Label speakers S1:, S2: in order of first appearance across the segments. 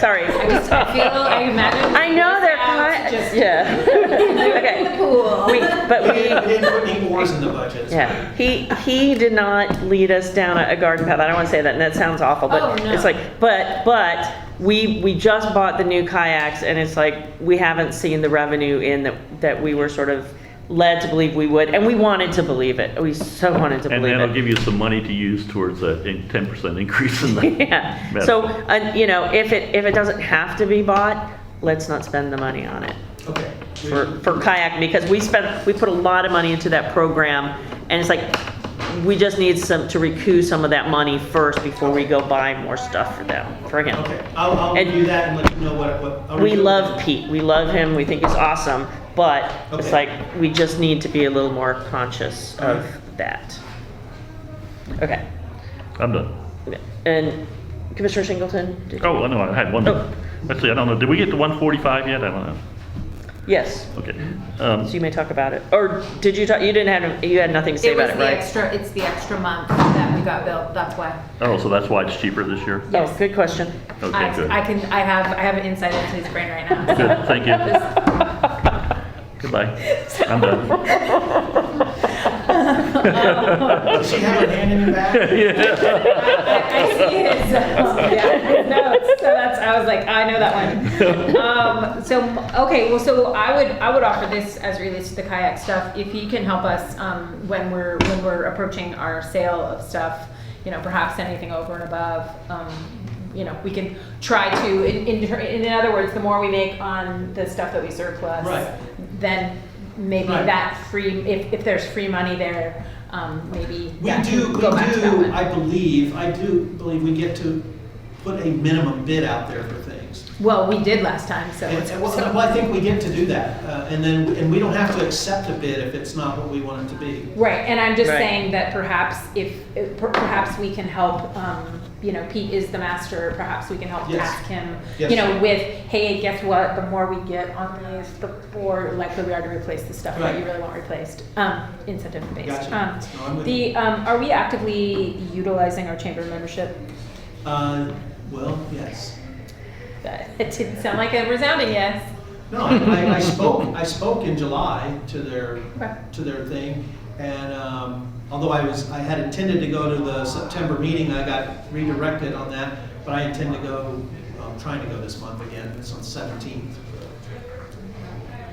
S1: Sorry.
S2: I feel, I imagine.
S1: I know they're
S2: out
S1: cut.
S2: Just
S1: Yeah. Okay.
S2: pool.
S1: We, but
S3: They
S1: we,
S3: didn't put any oars in the budget.
S1: yeah. He, he did not lead us down a a garden path. I don't want to say that, and that sounds awful, but
S2: Oh, no.
S1: it's like, but, but, we, we just bought the new kayaks, and it's like, we haven't seen the revenue in that, that we were sort of led to believe we would, and we wanted to believe it. We so wanted to
S4: And
S1: believe it.
S4: that'll give you some money to use towards a in- 10% increase in the.
S1: Yeah,
S4: Better.
S1: so, uh, you know, if it, if it doesn't have to be bought, let's not spend the money on it
S3: Okay. We-
S1: for, for kayak, because we spent, we put a lot of money into that program, and it's like, we just need some, to recoup some of that money first before we go buy more stuff for them, for him.
S3: Okay, I'll, I'll
S1: And-
S3: review that and let you know what, what. I'll
S1: We
S3: review it.
S1: love Pete, we love him, we think he's awesome, but it's
S3: Okay.
S1: like, we just need to be a little more conscious of that. Okay,
S4: I'm done.
S1: and Commissioner Singleton? did-
S4: Oh, I know, I had one.
S1: Oh.
S4: Let's see, I don't know, did we get to 145 yet? I don't know.
S1: Yes.
S4: Okay. Um,
S1: So you may talk about it, or did you talk, you didn't have, you had nothing to say
S2: It
S1: about
S2: was
S1: it,
S2: the
S1: right?
S2: extra, it's the extra month that we got built, that's why.
S4: Oh, so that's why it's cheaper this year?
S1: Oh, good question.
S4: Okay,
S2: I,
S4: good.
S2: I can, I have, I have an insight into his brain right now. so.
S4: Good, thank you. Goodbye. I'm done.
S3: Does she have her hand in the back?
S4: Yeah.
S2: I I see his, um, yeah, his notes, so that's, I was like, I know that one. Um, so, okay, well, so I would, I would offer this as it relates to the kayak stuff, if he can help us, um, when we're, when we're approaching our sale of stuff, you know, perhaps anything over and above, um, you know, we can try to, in, in, in other words, the more we make on the stuff that we surplus,
S3: Right.
S2: then maybe
S3: Right.
S2: that free, if, if there's free money there, um, maybe
S3: We
S2: that
S3: do,
S2: can
S3: we
S2: go back to that
S3: do,
S2: one.
S3: I believe, I do believe we get to put a minimum bid out there for things.
S2: Well, we did last time, so
S3: And,
S2: it's.
S3: and well,
S2: so-
S3: well, I think we get to do that, uh, and then, and we don't have to accept a bid if it's not what we want it to be.
S2: Right, and I'm just
S1: Right.
S2: saying that perhaps if, if per- perhaps we can help, um, you know, Pete is the master, perhaps we can help
S3: Yes.
S2: task him,
S3: Yes.
S2: you know, with, hey, guess what, the more we get on these, the more likely we are to replace the stuff that you
S3: Right.
S2: really want replaced, um, incentive based.
S3: Gotcha.
S2: Um,
S3: No, I'm with
S2: The, um, are we actively utilizing our chamber membership?
S3: Uh, well, yes.
S2: That- It didn't sound like a resounding yes.
S3: No, I, I- I spoke, I spoke in July to their,
S2: Okay.
S3: to their thing. And um, although I was, I had intended to go to the September meeting, I got redirected on that. But I intend to go, I'm trying to go this month again, it's on seventeenth.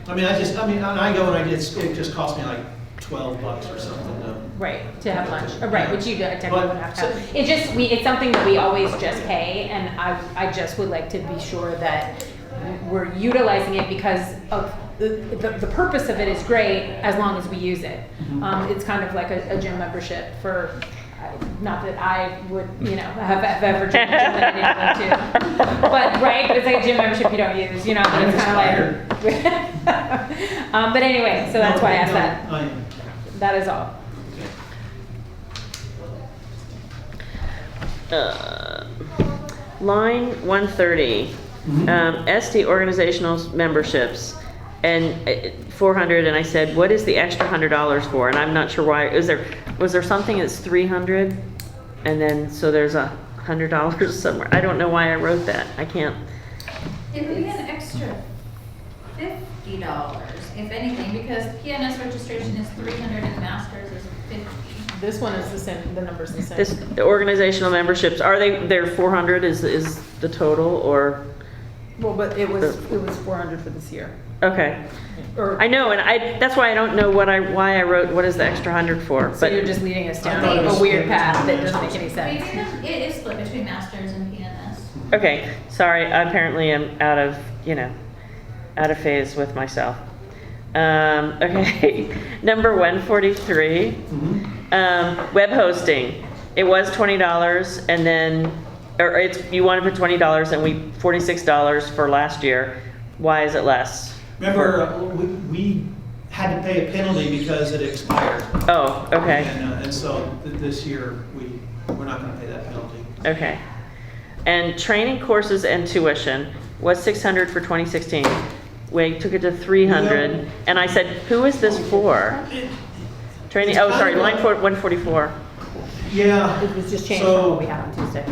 S3: I mean, I just, I mean, and I go and I get, it just cost me like twelve bucks or something to.
S2: Right, to have lunch, Oh, right, which you don't- technically
S3: But-
S2: would have to have. It just, we, it's something that we always just pay, and I, I just would like to be sure that we're utilizing it because of, the, the, the purpose of it is great as long as we use it.
S3: Mm-hmm.
S2: Um, it's kind of like a, a gym membership for, not that I would, you know, have, have ever joined a gym that I didn't go to. But, right, but it's like a gym membership you don't use, you know, but it's kind of like. Um, but anyway, so that's why I asked
S3: No,
S2: that,
S3: I-
S2: that is all.
S1: Uh, Line 130,
S2: Mm-hmm.
S1: um, SD organizational memberships, and uh, 400, and I said, what is the extra $100 for? And I'm not sure why, is there, was there something that's 300? And then, so there's a $100 somewhere. I don't know why I wrote that. I can't,
S5: It would be an extra fifty dollars, if anything, because PNS registration is three hundred and masters is fifty.
S2: This one is the same, the number's the same.
S1: this, the organizational memberships, are they, they're 400 is, is the total, or,
S2: Well, but it was, it was four hundred for this year,
S1: okay.
S2: or,
S1: I know, and I, that's why I don't know what I, why I wrote, what is the extra 100 for?
S2: so
S1: but-
S2: you're just leading us down
S3: thought it
S2: a
S3: was
S2: weird
S3: split
S2: path that
S3: between
S2: doesn't
S3: those.
S2: make any
S5: Maybe
S2: sense.
S5: it is split between masters and PNS.
S1: Okay, sorry, apparently I'm out of, you know, out of phase with myself. Um, okay, number 143,
S3: mhm.
S1: um, web hosting. It was $20 and then, or it's, you want to put $20 and we, $46 for last year. Why is it less?
S3: Remember, uh, we, we had to pay a penalty because it expired.
S1: Oh, okay,
S3: And, uh, and so th- this year, we, we're not gonna pay that penalty.
S1: okay. And training courses and tuition was 600 for 2016. We took it to 300 and I said, who is this for? Training, oh, sorry, line four- 144.
S3: Yeah.
S2: It was just changed
S3: So-
S2: from what we had on Tuesday.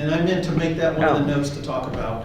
S3: And I meant to make that one of
S1: Oh.
S3: the notes to talk about.